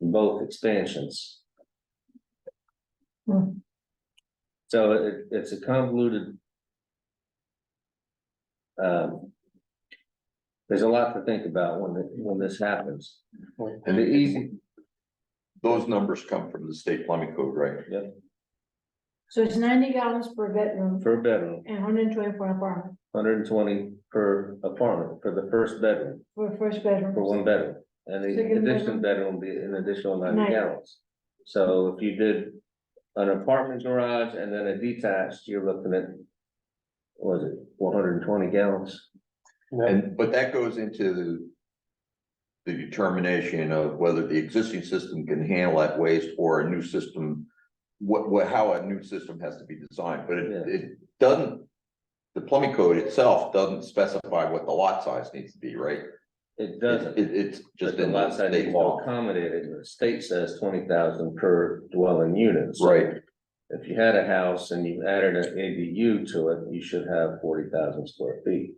both expansions. Hmm. So it, it's a convoluted. Um. There's a lot to think about when, it- when this happens. And the easy, Those numbers come from the state plumbing code, right? So it's ninety gallons per bedroom per bedroom, and hundred and twenty for an apartment, hundred and twenty per apartment, for the first bedroom, for a first for bedroom. one bedroom. And the Second addition bedroom would be an additional Nine. ninety gallons. So if you did an apartment garage and then a detached, you're looking at. what Was it one hundred and twenty gallons? And, but that goes into the. The determination of whether the existing system can handle that waste or a new system. What, what, how a new system has to be designed, but it, Yeah. it doesn't. The plumbing code itself doesn't specify what the lot size needs to be, right? It doesn't. It, it's But just the in the lot size state needs to law, accommodate it. The state says twenty thousand per dwelling unit. So right? If you had a house and you added an ADU to it, you should have forty thousand square feet.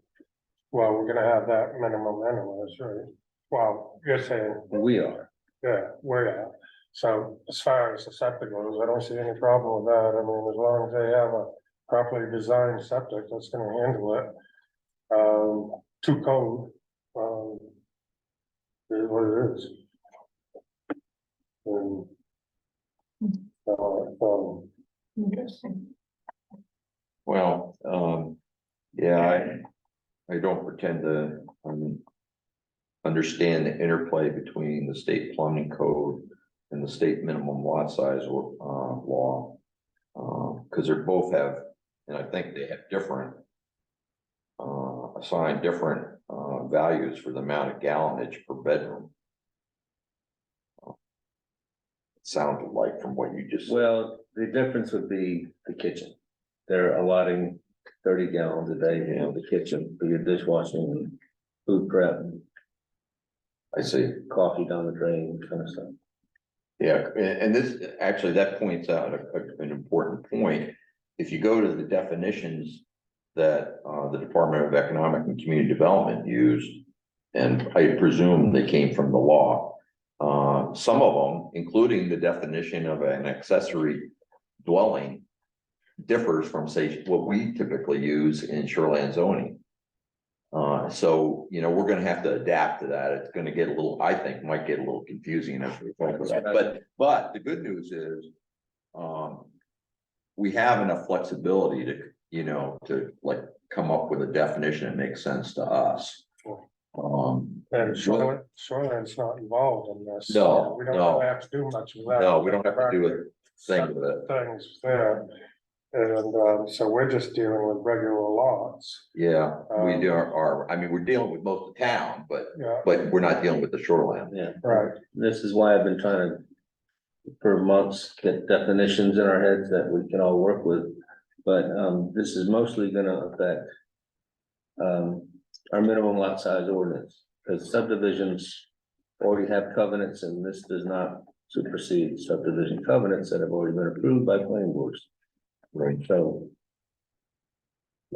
Well, we're gonna have that minimum anyways, right? Well, you're saying, We are. yeah, we're at. So as far as the septic goes, I don't see any problem with that. I mean, as long as they have a properly designed septic that's gonna handle it. Um, to code, um. Is what it is. And. uh, um, Interesting. Well, um, yeah, I, I don't pretend to, um. Understand the interplay between the state plumbing code and the state minimum lot size or, uh, law. Uh, cause they're both have, and I think they have different. Uh, assigned different, uh, values for the amount of gallonage per bedroom. Uh, It Sounded like from what you just said. Well, the difference would be the kitchen. They're allotting thirty gallons a day in the kitchen for your dishwashing and food prep and I see. coffee down the drain kind of stuff. Yeah, a- and, this, actually, that points out a- a- an important point. If you go to the definitions that, uh, the Department of Economic and Community Development used, and I presume they came from the law, uh, some of them, including the definition of an accessory dwelling, differs from, say, what we typically use in shoreline zoning. Uh, so, you know, we're gonna have to adapt to that. It's gonna get a little, I think, might get a little confusing as we think about it. But, but the good news is, um, we have enough flexibility to, you know, to like come up with a definition that makes sense to us. Um, And shoreline, shoreline's not involved in this. No, We don't no. have to do much with that. no, we don't have to do a thing with it. things there. And um, so we're just dealing with regular lots, Yeah, we Um, do our- our, I mean, we're dealing with most of town, but, yeah, but we're not dealing with the shoreline. Yeah. right, This is why I've been trying to. For months, get definitions in our heads that we can all work with, but um this is mostly gonna affect. Um our minimum lot size ordinance, because subdivisions already have covenants and this does not supersede subdivision covenants that have already been approved by planning boards, Right. so.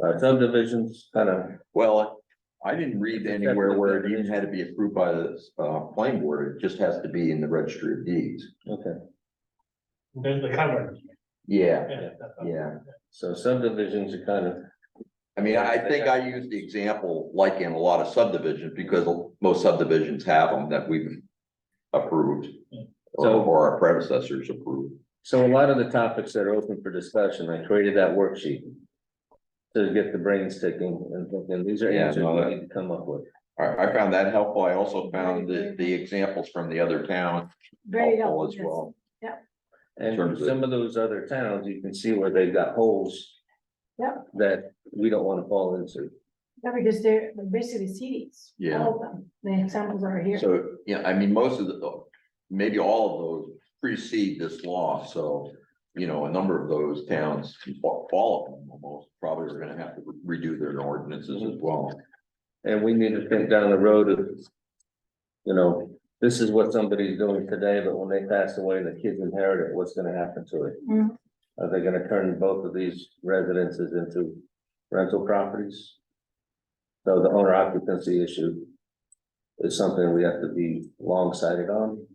Our subdivisions kind of, Well, I didn't read It's a anywhere separate where it even had to be approved by the, uh, planning board. It just has to be in the registry of deeds. okay. There's the cover. Yeah, Yeah. yeah. So subdivisions are kind of, I mean, I think I used the example like in a lot of subdivisions because most subdivisions have them that we've approved. Or So- or our predecessors approved. So a lot of the topics that are open for discussion, I created that worksheet. To get the brains ticking and thinking, these are Yeah, answers no, we that- need to come up with. I, I found that helpful. I also found the, the examples from the other towns Very helpful helpful. as well. And for terms of- some of those other towns, you can see where they've got holes. Yep. That we don't wanna fall into. Yeah, because they're they're basically cities. Yeah. All of them, the examples are here. So, yeah, I mean, most of the, oh, maybe all of those precede this law, so, you know, a number of those towns, all of them almost, probably are gonna have to redo their ordinances as well. And we need to think down the road of. You know, this is what somebody's doing today, but when they pass away and the kids inherit it, what's gonna happen to it? Mhm. Are they gonna turn both of these residences into rental properties? So the owner occupancy issue is something we have to be long sighted on.